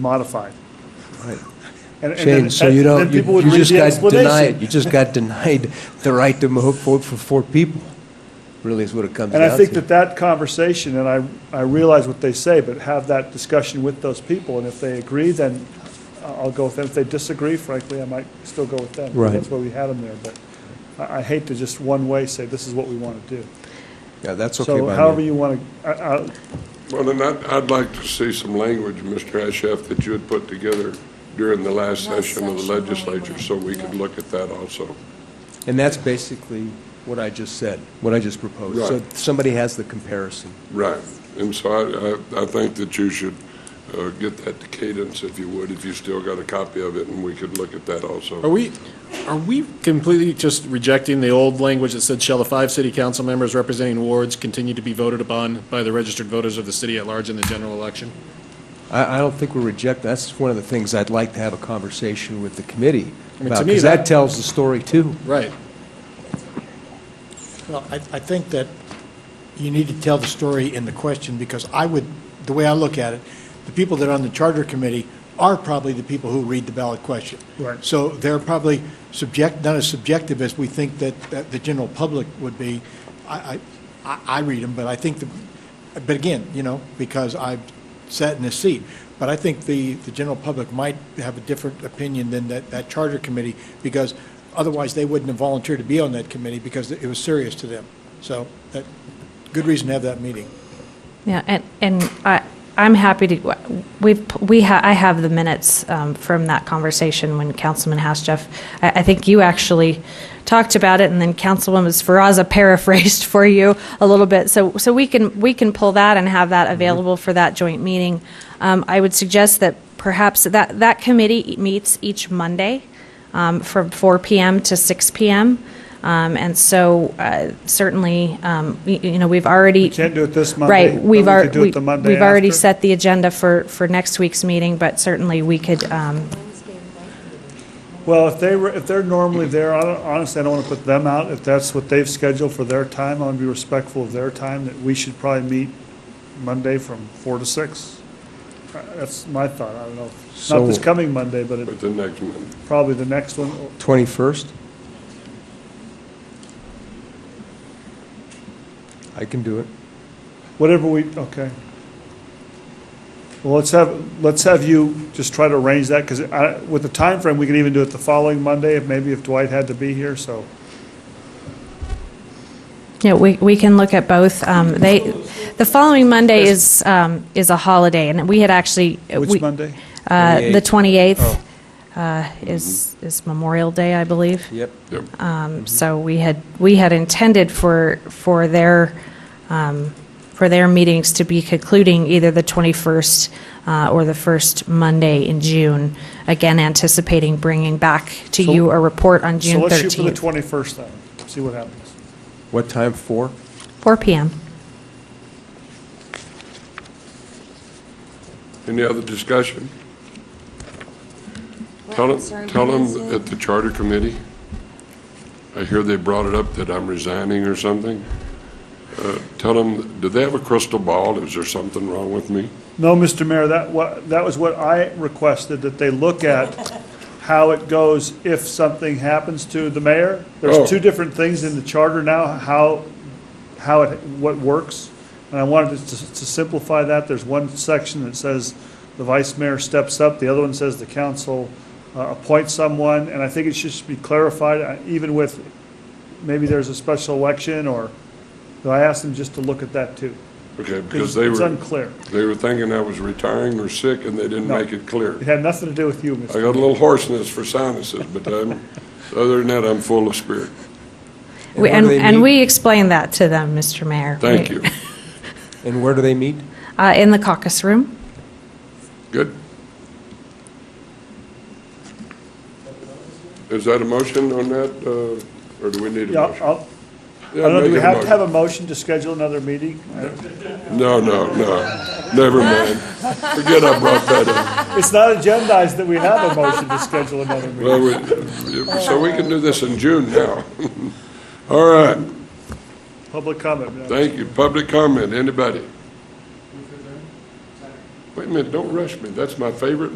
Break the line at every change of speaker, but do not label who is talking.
modified.
Right.
And- and then
Shane, so you
that-
don't,
then
you
people would
you
read
just
the
got
explanation.
denied, you just got denied the right to vote for, for four people, really is what it comes down
And
to.
I think that that conversation, and I, I realize what they say, but have that discussion with those people, and if they agree, then I'll go with them. If they disagree, frankly, I might still go with them.
Right.
That's why we had them there, but I, I hate to just one way say, this is what we want to do.
Yeah, that's okay
So
by me.
however you want to, I, I,
Well, then I'd, I'd like to see some language, Mr. Ashaf, that you had put together during the last
Last
session of the
session,
legislature, so we could
yeah.
look at that also.
And that's basically what I just said, what I just proposed. So
Right.
somebody has the comparison.
Right. And so I, I, I think that you should uh, get that to Cadence, if you would, if you still got a copy of it, and we could look at that
Are
also.
we, are we completely just rejecting the old language that said, shall the five city council members representing wards continue to be voted upon by the registered voters of the city at large in the general election?
I, I don't think we're rejecting, that's one of the things I'd like to have a conversation with the committee
I mean, to
about,
me,
because that
that-
tells the story too.
Right.
Well, I, I think that you need to tell the story in the question, because I would, the way I look at it, the people that are on the charter committee are probably the people who read the ballot question.
Right.
So they're probably subject, not as subjective as we think that, that the general public would be. I, I, I- I read them, but I think the, but again, you know, because I've sat in this seat. But I think the, the general public might have a different opinion than that, that charter committee, because otherwise they wouldn't have volunteered to be on that committee because it was serious to them. So that, good reason to have that meeting.
Yeah, and, and I, I'm happy to, we've, we ha, I have the minutes um, from that conversation when Councilman Hasjeff, I, I think you actually talked about it, and then Councilwoman Sferraza paraphrased for you a little bit. So, so we can, we can pull that and have that available for that joint meeting. Um, I would suggest that perhaps that, that committee meets each Monday um, from 4 PM to 6 PM. Um, And so uh, certainly, um, y- you know, we've already.
can't do it this Monday,
Right,
but
we've
we
already,
could do it the Monday
we've already
after.
set the agenda for, for next week's meeting, but certainly we could, um,
well, if they were, if they're normally there, I don't, honestly, I don't want to put them out. If that's what they've scheduled for their time, I want to be respectful of their time, that we should probably meet Monday from four to six. Uh, That's my thought, I don't know. Not this
So-
coming Monday, but it-
But the next one,
probably the next one, or-
21st? I can do it.
whatever we, okay. Well, let's have, let's have you just try to arrange that, because I, with the time frame, we can even do it the following Monday, if maybe if Dwight had to be here, so.
yeah, we, we can look at both. Um, They, the following Monday is, um, is a holiday, and we had actually. we-
Which Monday?
uh, The 28th
Oh.
uh, is, is Memorial Day, I believe.
Yep.
yep.
So we had, we had intended for, for their, um, for their meetings to be concluding either the 21st uh, or the first Monday in June, again anticipating bringing back to
So-
you a report on June
So let's shoot for the
13th,
21st then, see what happens.
What time, 4?
4 PM.
Any other discussion? Tell them, tell them at the charter committee, I hear they brought it up that I'm resigning or something. Uh, Tell them, do they have a crystal ball? Is there something wrong with me?
No, Mr. Mayor, that wa, that was what I requested, that they look at how it goes if something happens to the mayor.
Oh.
There's two different things in the charter now, how, how it, what works. And I wanted to, to simplify that. There's one section that says the vice mayor steps up, the other one says the council uh, appoints someone. And I think it should be clarified, uh, even with, maybe there's a special election or, I asked them just to look at that too.
Okay, because they
It's
were,
unclear.
they were thinking I was retiring or sick, and they didn't
No.
make it clear.
It had nothing to do with you,
I
Mr.
got a little hoarseness for sinuses, but I'm, other than that, I'm full of spirit.
We- And, and we explained that to them, Mr. Mayor.
Thank
We-
you.
And where do they meet?
uh, In the caucus room.
Good. Is that a motion on that, uh, or do we need a
Yeah,
motion?
I'll, I don't know, do we
make a
have to have
motion.
a motion to schedule another meeting?
No, no, no, never mind. Forget I brought that up.
It's not agendized that we have a motion to schedule another meeting.
Well, we- So we can do this in June now. All right,
Public comment, yeah.
thank you. Public comment, anybody? Wait a minute, don't rush me, that's my favorite